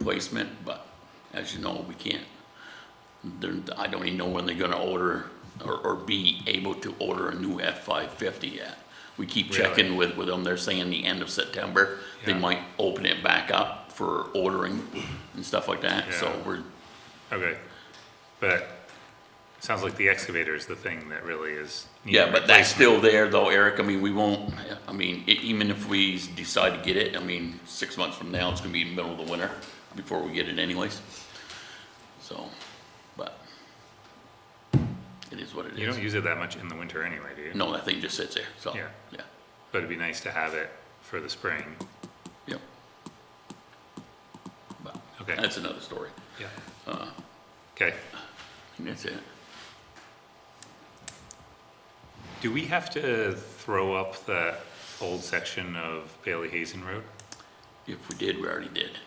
replacement, but as you know, we can't. There, I don't even know when they're gonna order or, or be able to order a new F five fifty yet. We keep Really? checking with, with them. They're saying the end of September, they Yeah. might open it back up for ordering and stuff like that, so Yeah. we're, Okay, but it sounds like the excavator is the thing that really is. needing Yeah, but that's replacement. still there though, Eric. I mean, we won't, I mean, e- even if we decide to get it, I mean, six months from now, it's gonna be middle of the winter before we get it anyways. So, but it is what it You is. don't use it that much in the winter anyway, do you? No, that thing just sits there, so, Yeah. yeah, But it'd be nice to have it for the spring. yep. But Okay. that's uh, another story. Yeah. Okay, And that's it. do we have to throw up the old section of Bailey Hazen Road? If we did, we already did.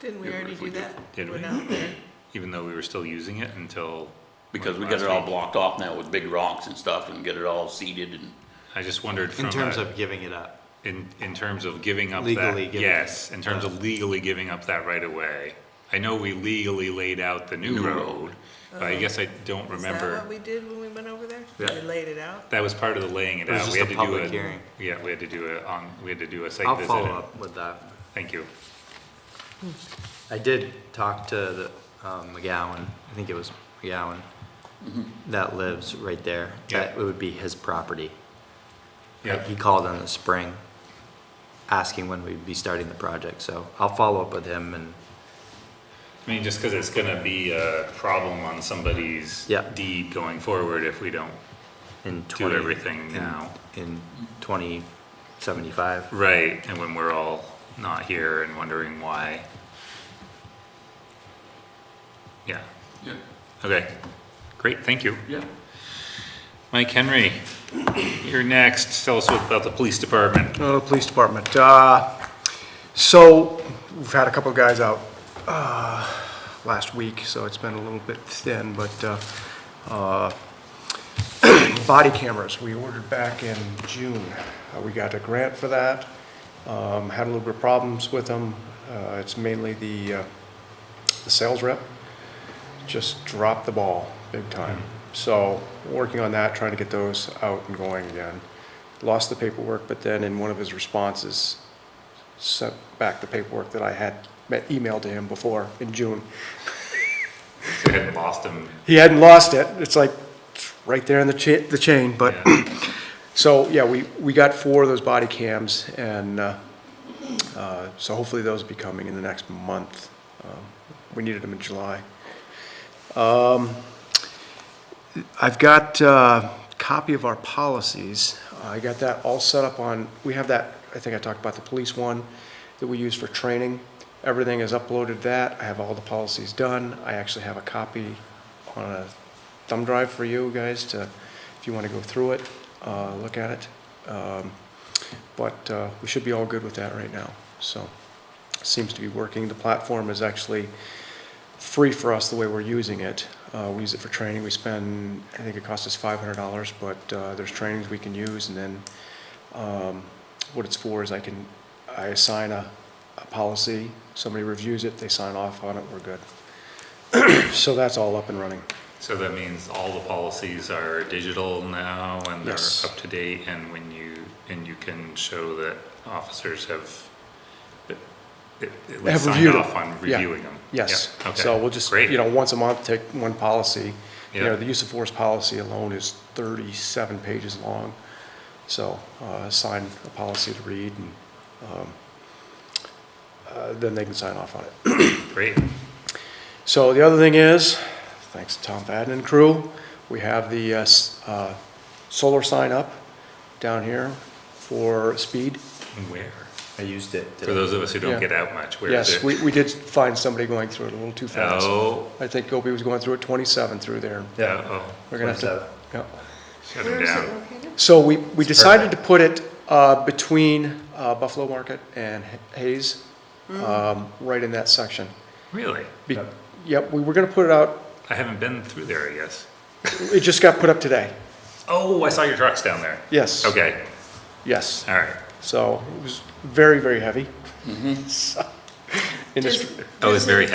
Didn't we Yeah, already if we do did- that? did We're we? not there. Even though we were still using it until. Because we like, got it last all week? blocked off now with big rocks and stuff and get it all seeded and, I just wondered from In terms a, of giving it up. in, in terms of giving up Legally that, giving yes, in terms up. of legally giving up that right of way. I know we legally laid out the new New road, but I guess I don't Is that what remember. we did when we went over there? Yeah. We laid it out? That was part of the laying it It was out. just We had a to do public hearing. Yeah, we had to do a, on, we had to do a site I'll visit. follow and- up with that. Thank you. I did talk to the um, McGowan, I think it was McGowan, that lives right there. Yeah. That it would be his property. Yeah, He called in the spring, asking when we'd be starting the project, so I'll follow up with him and, I mean, just because it's gonna be a problem on somebody's Yeah. deed going forward if we don't. in Do twenty. everything in- now. In twenty seventy-five. Right, and when we're all not here and wondering why. Yeah, yeah, okay, great, thank you. yeah. Mike Henry, you're next, tell us about the police department. Uh, Police Department. Uh, So, we've had a couple of guys out uh, last week, so it's been a little bit thin, but uh, uh, body cameras, we ordered back in June. Uh, We got a grant for that, Um, had a little bit of problems with them. Uh, It's mainly the uh, the sales rep just dropped the ball big time. So, working on that, trying to get those out and going again. Lost the paperwork, but then in one of his responses, sent back the paperwork that I had met- emailed to him before in June. I hadn't lost him. He hadn't lost it. It's like, it's right there in the cha, the chain, but, so, yeah, we, we got four of those body cams and, uh, uh, so hopefully those will be coming in the next month. Um, We needed them in July. I've got a copy of our policies. I got that all set up on, we have that, I think I talked about the police one that we use for training. Everything is uploaded to that. I have all the policies done. I actually have a copy on a thumb drive for you guys to, if you want to go through it, uh, look at it. Um, But uh, we should be all good with that right now, so. Seems to be working. The platform is actually free for us the way we're using it. Uh, we use it for training. We spend, I think it costs us five hundred dollars, but uh, there's trainings we can use, and then um, what it's for is I can I assign a, a policy. Somebody reviews it, they sign off on it, we're good. so that's all up and running. So that means all the policies are digital now and they're Yes. up to date and when you, and you can show that officers have at- at at least Have signed reviewed off them. on Yeah. reviewing them. Yes. Yeah, okay. So we'll just Great. you know once a month take one policy. You Yeah. know the use of force policy alone is 37 pages long. So uh, assign a policy to read and. Um, uh, then they can sign off on it. Great, So the other thing is, thanks to Tom Fadden and crew, we have the uh, s- uh, solar sign up down here for speed. And where? I used it. For those of us who Yeah. don't get out much, where is it? Yes, we, we did find somebody going through it a little too fast. Oh, I think Gopi was going through at 27 through there. yeah, oh, We're gonna have to. 27. yeah. shut Where him is it down. located? So we, we decided to put it uh, between uh, Buffalo Market and Hayes, um, right in that section. Really? Be- Yep, we were gonna put it out, I haven't been through there, I guess. it just got put up today. Oh, I saw your trucks down there. Yes. Okay, Yes. all right. So it was very, very heavy. So, in this- Does- I was very